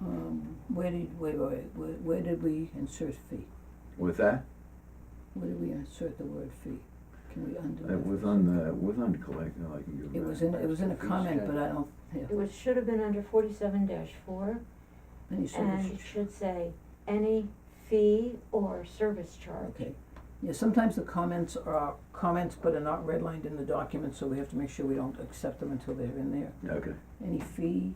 um, where did, wait, wait, wait, where, where did we insert fee? With that, Where did we insert the word fee? Can we undo it was on the, it was on uh, collect, no, I can give It was in, it was in a comment, but I don't, yeah, It was, should have been under forty-seven four, any service. and it should say, any fee or service charge. Okay, yeah, sometimes the comments are comments, but are not redlined in the document, so we have to make sure we don't accept them until they're in there. Okay, Any fee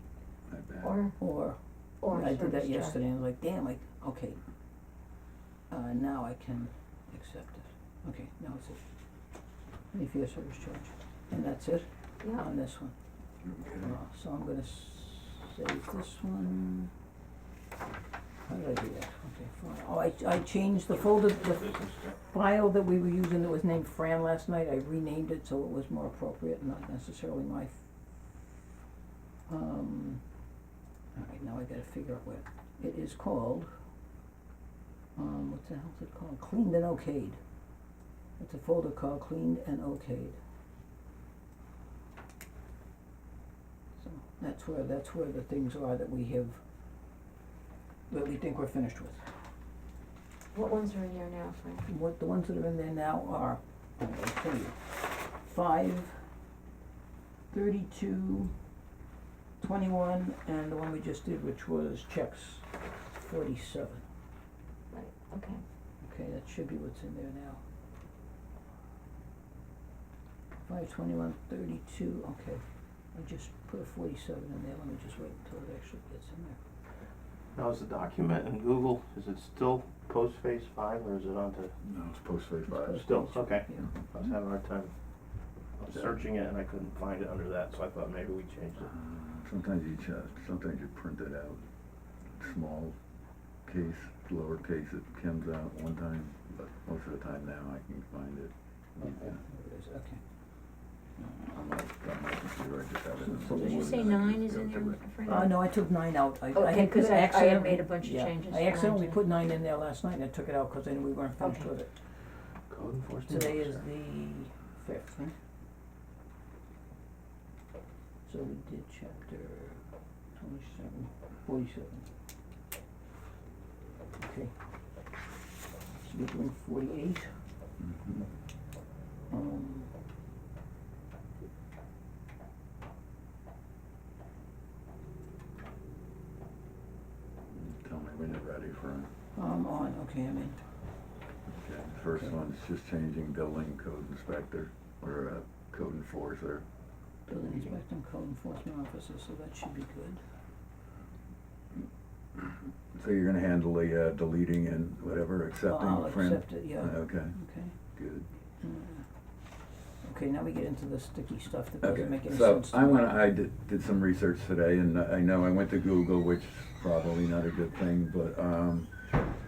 my bad. Or, or, or I service charge. did that yesterday, and I was like, damn, like, okay. Uh, now I can accept it, okay, now it's it. Any fee or service charge, and that's it Yeah, on this one. Okay. Uh, So I'm gonna save this one. How did I do that? Okay, fine. Oh, I, I changed the folder, the file that we were using that was named Fran last night, I renamed it so it was more appropriate, not necessarily my. f- Um, alright, now I gotta figure out what, it is called, um, what the hell's it called? Cleaned and Okayed. It's a folder called Cleaned and Okayed. So that's where, that's where the things are that we have, that we think we're finished with. what ones are in there now, Frank? What, the ones that are in there now are, I'm gonna tell you, five, thirty-two, twenty-one, and the one we just did, which was checks, forty-seven. Right, okay. Okay, that should be what's in there now. Five twenty-one thirty-two, okay. I just put a forty-seven in there, let me just wait until it actually gets in there. How's the document in Google? Is it still Postface five or is it onto, No, it's post thirty five. It's still, postage, okay. yeah. I was having a hard time I was searching it and I couldn't find it under that, so I thought maybe we changed it. Uh, Sometimes you ch- sometimes you print it out, small case, lowercase, it comes out one time, but most of the time now I can find it. There it is, okay. I'm like, got my computer, I just have it. in So the did Did you folder say and I nine just is go in to there, it. Frank? Uh, no, I took nine out, I, I Okay, had, 'cause I- I had accidentally- made a bunch of yeah, changes I to accidentally mine, put nine in there last night and I took it out, cause I knew we weren't finished Okay. with it. Code enforcement Today is officer. the fifth, right? So we did chapter twenty-seven, forty-seven. Okay. So we're doing forty-eight, Mhm. um. Tell me when you're ready for it. I'm on, okay, I'm in. Okay, the first Okay. one's just changing building code inspector or uh, code enforcer. Building inspector and code enforcement officer, so that should be good. So you're gonna handle the uh, deleting and whatever, accepting, I'll friend? accept it, yeah. Uh, Okay, Okay. good. Uh, Okay, now we get into the sticky stuff that Okay, doesn't make any so sense to me. I went, I did, did some research today and I know I went to Google, which is probably not a good thing, but, um,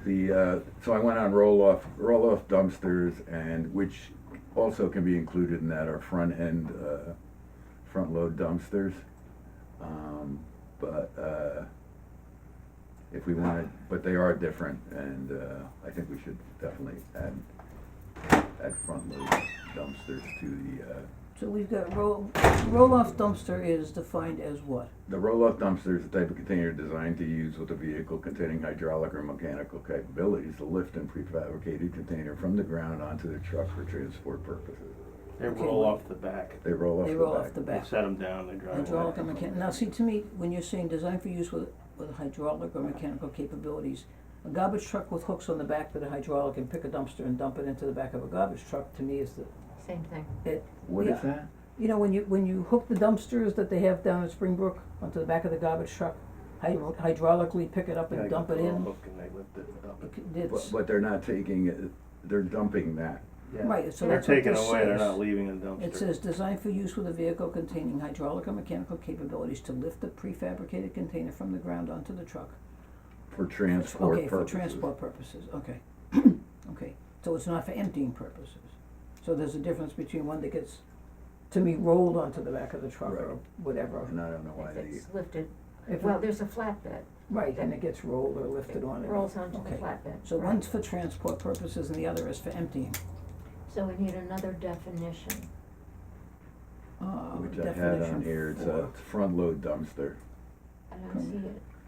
the, uh, so I went on roll-off, roll-off dumpsters and which also can be included in that are front-end, uh, front-load dumpsters. Um, but, uh, if we wanted, but they are different and, uh, I think we should definitely add, add front-load dumpsters to the, uh, So we've got roll, roll-off dumpster is defined as what? The roll-off dumpster is a type of container designed to use with a vehicle containing hydraulic or mechanical capabilities to lift and prefabricated container from the ground onto the truck for transport purposes. They Okay. roll off the back. They roll off They the roll off back. the They back. set them down, they drive away. Hydraulic and mechanical, now see, to me, when you're saying design for use with, with hydraulic or mechanical capabilities, a garbage truck with hooks on the back that are hydraulic and pick a dumpster and dump it into the back of a garbage truck, to me is the, Same thing. What is yeah. that? you know, when you, when you hook the dumpsters that they have down at Springbrook onto the back of the garbage truck, hydro- hydraulically pick it up Yeah, and you dump put it a little in, hook and they lift it and dump it. it c- But, it's, but they're not taking it, they're dumping that. Yeah. right, so They're that's what this taking it away, they're says. not leaving in the It dumpster. says designed for use with a vehicle containing hydraulic or mechanical capabilities to lift the prefabricated container from the ground onto the truck. For transport Okay, purposes. for transport purposes, okay. Okay, so it's not for emptying purposes. So there's a difference between one that gets, to me, rolled onto the back of the truck or Right. whatever. And I don't know why If they, it's lifted, If it- well, there's a flatbed, Right, and it gets rolled or lifted on it. rolls onto the Okay. flatbed. So right. one's for transport purposes and the other is for emptying. So we need another definition. Uh, which I had on definition here, it's for- a front-load dumpster. I don't see it.